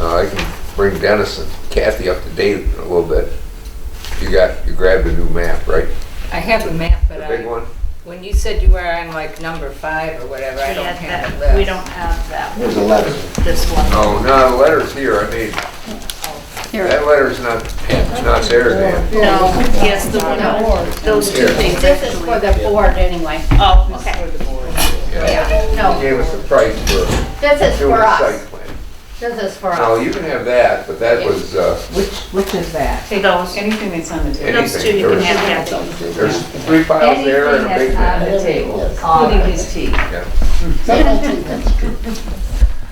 Uh, I can bring Dennis and Kathy up to date a little bit. You got, you grabbed a new map, right? I have a map, The but big I, one? when you said you were on like number five or whatever, I don't Yeah, have a that- list. We don't have that, There's a letter. this one. No, Oh, no, the letter's here, I mean, that letter's not, it's not there, Dan. No, yes, the one, those two things This is for actually. the board anyway. Oh, okay. Yeah. You No, gave us the price for this is doing for a site us. plan. This is for No, us. you can have that, but that was, uh, Which, which is that? Take those. Anything that's on the table. Those anything. two you can There's- have, Kathy. There's three piles there and a big one. uh, the table, including his tea.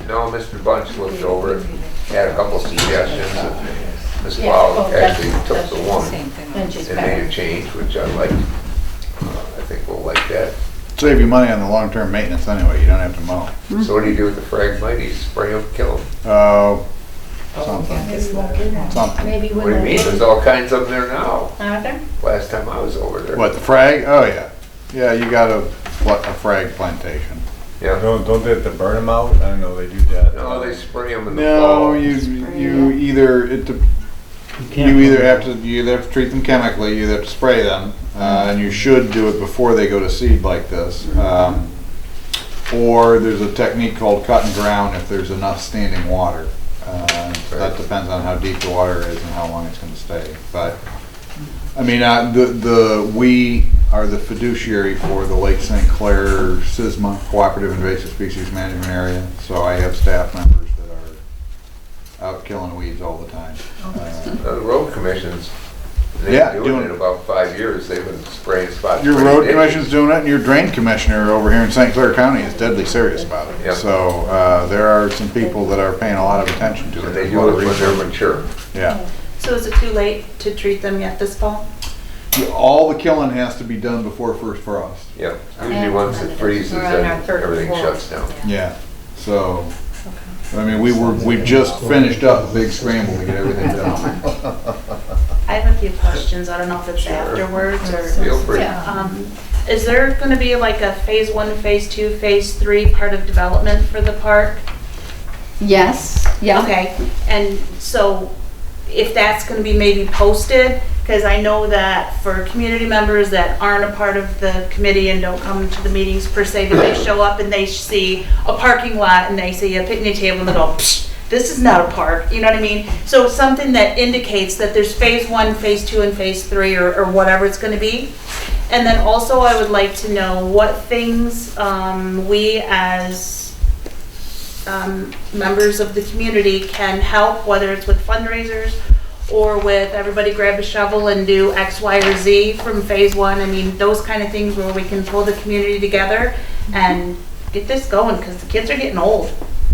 No, Mr. Bunch looked over it, had a couple suggestions, and Ms. Blau actually took the one Same thing. Then she's and made better. a change, which I liked. Uh, I think we'll like that. Save you money on the long-term maintenance anyway, you don't have to mow. Mm-hmm. So what do you do with the phragmites? Spray them, kill them? Oh, something, something. Maybe What do you mean? when, There's all kinds of them there now. are there? Last time I was over there. What, the frag? Oh, yeah. Yeah, you got a, pl- a frag plantation. Yeah. Don't, don't they have to burn them out? I know they do that. No, they spray them in the fall. No, you, you either, it, de- you either have to, you either have to treat them chemically, you either have to spray them, uh, and you should do it before they go to seed like this. Um, Or there's a technique called cut and drown if there's enough standing water. Uh, That depends on how deep the water is and how long it's gonna stay, but, I mean, uh, the, the, we are the fiduciary for the Lake St. Clair SISMA Cooperative Invasive Species Management Area, so I have staff members that are out killing weeds all the time. Uh, Uh, The road commissions, they've Yeah, been doing doing- it about five years. They've been spraying spots. Your road commission's doing it, and your drain commissioner over here in St. Clair County is deadly serious about Yeah. it. So, uh, there are some people that are paying a lot of attention to it. And they There's a lot do it of when research. they're mature. Yeah. So is it too late to treat them yet this fall? All the killing has to be done before first frost. Yeah, usually once it freezes, We're on our then third everything floor. shuts down. Yeah, so, I mean, we were, we just finished up a big scramble to get everything done. I have a few questions. I don't know if it's Sure. afterwards or. Feel free. Um, Is there going to be like a phase one, phase two, phase three part of development for the park? Yes, yeah. Okay, and so if that's gonna be maybe posted, because I know that for community members that aren't a part of the committee and don't come to the meetings per se, but they show up and they see a parking lot and they see a picnic table and they go, psh, this is not a park, you know what I mean? So something that indicates that there's phase one, phase two, and phase three, or, or whatever it's gonna be. And then also I would like to know what things, um, we as um, members of the community can help, whether it's with fundraisers or with everybody grab a shovel and do X, Y, or Z from phase one. I mean, those kind of things where we can pull the community together and get this going, because the kids are getting old.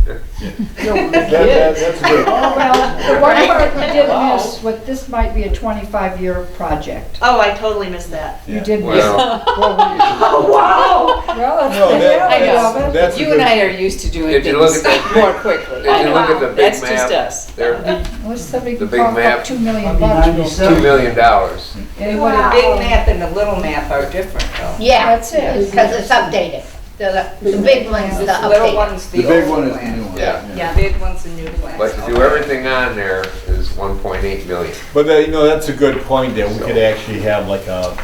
That's good. Oh, well, the one part we did miss, what, this might be a 25-year project. Oh, I totally missed that. You did miss. Well, Oh, Well, that's No, the that- reality that's- of it. that's a You good- and I are used to doing If you look at things that big- more quickly. if you look at the big That's just map, us. they're Unless somebody The can big cough map. up 2 million bucks. two million dollars. Anybody- The big map and the little map are different though. Yeah, That's it. because it's updated. The, the big one's the The little updated. one's The the big one old is the new plan. one. Yeah. The big one's the new plan. But to do everything on there is one point eight million. But that, you know, that's a good point that we could actually have like a,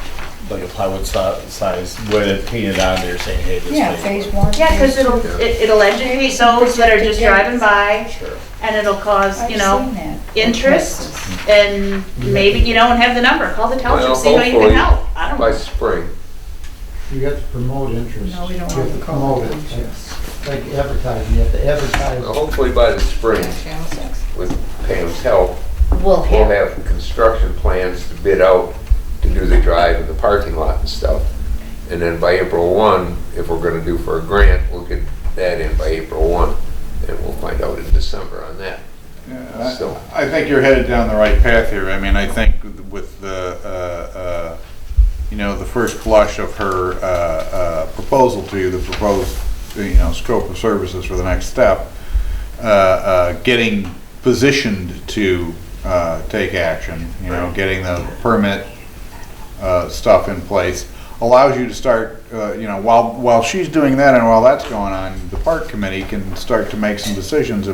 like a plywood si- size with it painted on there saying, hey, this. Yeah, thing- phase one. Yeah, because phase two. it'll, it- it'll educate those that are just driving by Sure. and it'll cause, I've you know, seen that. interest and maybe, you know, and have the number. Call the Well, township, see how you can hopefully help. I don't By know. spring, You have to promote interest. No, we don't You have want to to call promote it it. Like advertising, you have to Well, advertise. hopefully by the spring, with Pam's help, We'll we'll have, have construction plans to bid out to do the drive and the parking lot and stuff. And then by April one, if we're gonna do for a grant, we'll get that in by April one, and we'll find out in December on that. Yeah, So- I I think you're headed down the right path here. I mean, I think with the, uh, uh, you know, the first blush of her uh, uh, proposal to you, the proposed, you know, scope of services for the next step, uh, uh, getting positioned to uh, take action, you know, getting the permit uh, stuff in place allows you to start, uh, you know, while, while she's doing that and while that's going on, the park committee can start to make some decisions